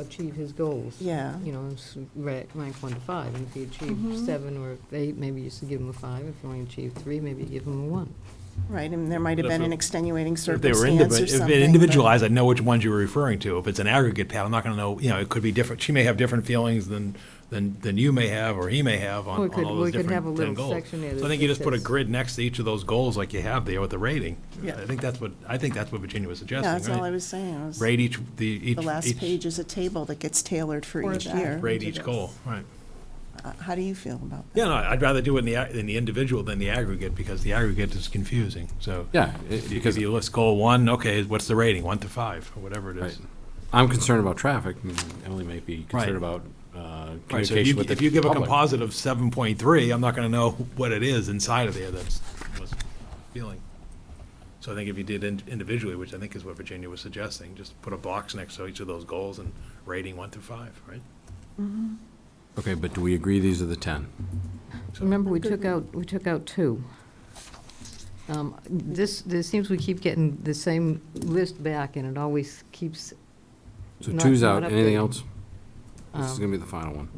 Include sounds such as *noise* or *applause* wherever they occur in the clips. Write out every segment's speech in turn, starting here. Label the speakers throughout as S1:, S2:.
S1: achieve his goals.
S2: Yeah.
S1: You know, it's ra- rank one to five, and if he achieved
S2: Mhm.
S1: seven or eight, maybe you should give him a five. If he only achieved three, maybe you give him a one.
S2: Right, and there might have
S3: But if
S2: been an
S3: it-
S2: extenuating
S3: If they were
S2: circumstance
S3: indivi-
S2: or
S3: if
S2: something.
S3: it
S2: but-
S3: individualized, I'd know which ones you were referring to. If it's an aggregate pat, I'm not going to know, you know, it could be different. She may have different feelings than, than, than you may have or he may have on
S1: Or
S3: on
S1: it could-
S3: all
S1: or
S3: those
S1: it could have a
S3: different
S1: little
S3: 10 goals.
S1: section there
S3: So I
S1: that
S3: think you just put a
S1: says-
S3: grid next to each of those goals like you have there with the rating.
S2: Yeah.
S3: I think that's what, I think that's what Virginia was
S2: Yeah,
S3: suggesting,
S2: that's all I
S3: right?
S2: was saying, was
S3: Rate each, the, each.
S2: the last
S3: each-
S2: page is a table that gets tailored for
S1: Or
S2: each
S1: that.
S2: year.
S3: Rate each goal, right.
S2: Uh, How do you feel about that?
S3: Yeah, no, I'd rather do it in the, ag- in the individual than the aggregate, because the aggregate is confusing, so.
S4: Yeah, it-
S3: Because
S4: because
S3: you list goal one, okay, what's the rating, one to five, or whatever it is.
S4: Right. I'm concerned about traffic, and Emily may be concerned
S3: Right.
S4: about uh,
S3: Right, so if
S4: communication
S3: you,
S4: with the
S3: if you give a
S4: public.
S3: composite of seven point three, I'm not gonna know what it is inside of there that's, was feeling. So I think if you did in- individually, which I think is what Virginia was suggesting, just put a box next to each of those goals and rating one through five, right?
S4: Okay, but do we agree these are the 10?
S1: Remember, we took out, we took out two. Um, This, this seems we keep getting the same list back, and it always keeps,
S4: So
S1: Not-
S4: two's
S1: not
S4: out, anything
S1: updated.
S4: else? This is
S1: Um,
S4: going to be the final
S1: *laughs*
S4: one.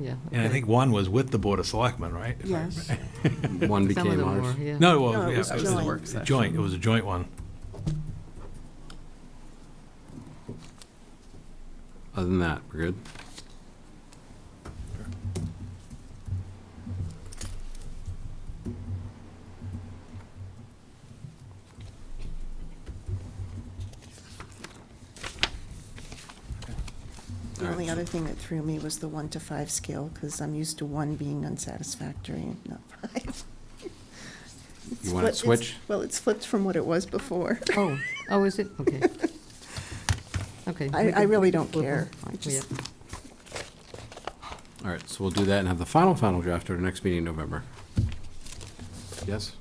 S1: yeah.
S3: And I
S1: okay.
S3: think one was with the Board of Selectmen, right? If I-
S2: Yes.
S4: One
S1: Some of
S4: became
S1: them
S4: ours.
S1: were, yeah.
S3: No, well,
S2: No, it
S3: yeah,
S2: was
S3: it was a
S2: joint.
S3: joint, it was a joint one.
S4: Other than that, we're good?
S2: The
S4: All right,
S2: only
S4: so-
S2: other thing that threw me was the one to five scale, because I'm used to one being unsatisfactory and not five. *laughs* It's
S4: You want it
S2: flipped- it's-
S4: switch?
S2: Well, it's flipped from what it was before.
S1: Oh, oh, is it? Okay. Okay.
S2: I-
S1: we
S2: I
S1: can-
S2: really
S1: we can
S2: don't
S1: flip 'em.
S2: care. I
S1: Yeah.
S2: just-
S4: All right, so we'll do that and have the final, final draft at our next meeting in November. Yes?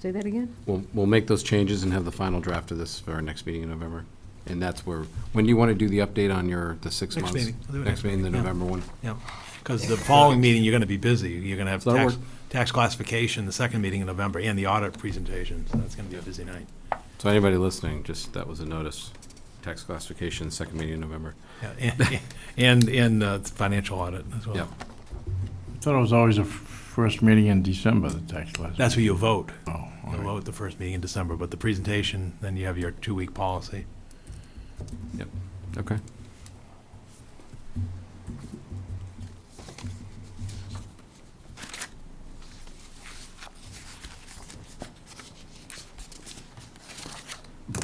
S1: Say that again?
S4: We'll, we'll make those changes and have the final draft of this for our next meeting in November. And that's where, when do you want to do the update on your, the six
S3: Next
S4: months?
S3: meeting. We'll do it next
S4: meeting, the
S3: meeting, yeah.
S4: November one?
S3: Yeah, because the following meeting, you're gonna be busy. You're gonna have
S4: So that'll
S3: tax, tax classification, the second meeting in November, and the audit presentation, so that's gonna be a busy night.
S4: So anybody listening, just, that was a notice. Tax classification, second meeting in November.
S3: Yeah, And, and, and uh, financial audit as
S4: Yeah.
S3: well.
S5: Thought it was always the f- first meeting in December, the tax last.
S3: That's where you vote.
S5: Oh, all
S3: You
S5: right.
S3: vote the first meeting in December, but the presentation, then you have your two-week policy.
S4: Okay.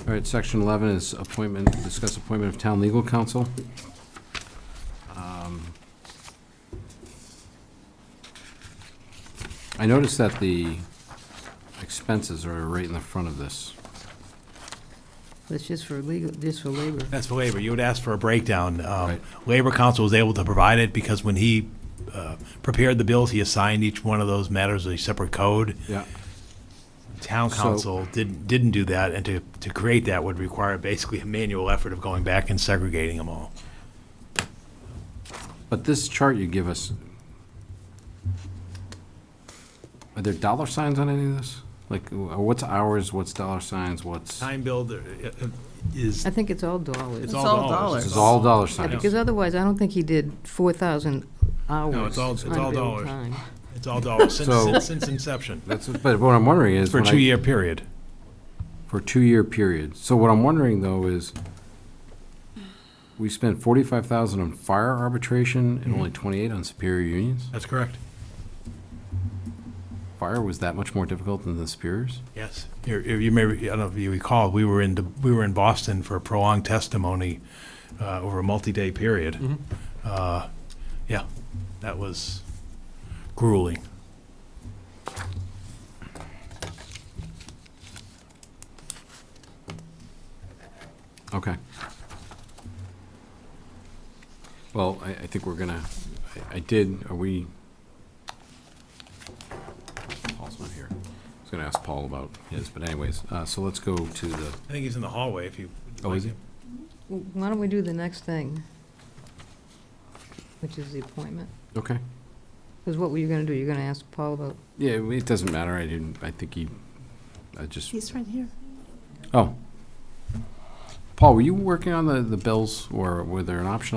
S4: All right, section eleven is appointment, discuss appointment of town legal counsel. Um, I noticed that the expenses are right in the front of this.
S1: That's just for legal, just for labor.
S3: That's for labor. You would ask for a breakdown. Um,
S4: Right.
S3: Labor Council was able to provide it because when he uh, prepared the bills, he assigned each one of those matters a separate code.
S4: Yeah.
S3: Town
S4: So-
S3: council didn't, didn't do that, and to, to create that would require basically a manual effort of going back and segregating them all.
S4: But this chart you give us, are there dollar signs on any of this? Like, wh- what's hours, what's dollar signs, what's,
S3: Time billed uh, uh, is,
S1: I think it's all dollars.
S3: it's all dollars.
S4: it's all dollar
S1: Yeah,
S4: signs.
S1: Because otherwise, I don't think he did 4,000 hours.
S3: all- it's all
S1: unbilled
S3: dollars.
S1: time.
S3: It's all dollars since,
S4: So-
S3: since- since inception,
S4: That's, but what I'm wondering is.
S3: for a
S4: when I-
S3: two-year period.
S4: For a two-year period. So what I'm wondering though is, we spent forty-five thousand on fire arbitration and only twenty-eight on superior unions?
S3: That's correct.
S4: Fire was that much more difficult than the superiors?
S3: Yes. You you may, re- I don't know if you recall, we were in, the- we were in Boston for prolonged testimony uh, over a multi-day period. Uh, Yeah, that was grueling.
S4: Okay. Well, I, I think we're gonna, I, I did, are we? Paul's not here. I was gonna ask Paul about his, but anyways, uh, so let's go to the,
S3: I think he's in the hallway if you. would
S4: oh,
S3: like
S4: is he?
S3: him.
S1: W- Why don't we do the next thing, which is the appointment?
S4: Okay.
S1: Because what were you going to do? You're going to ask Paul about,
S4: Yeah, it doesn't matter. I didn't, I think he, I just,
S2: He's right here.
S4: oh. Paul, were you working on the, the bills or were there an option on?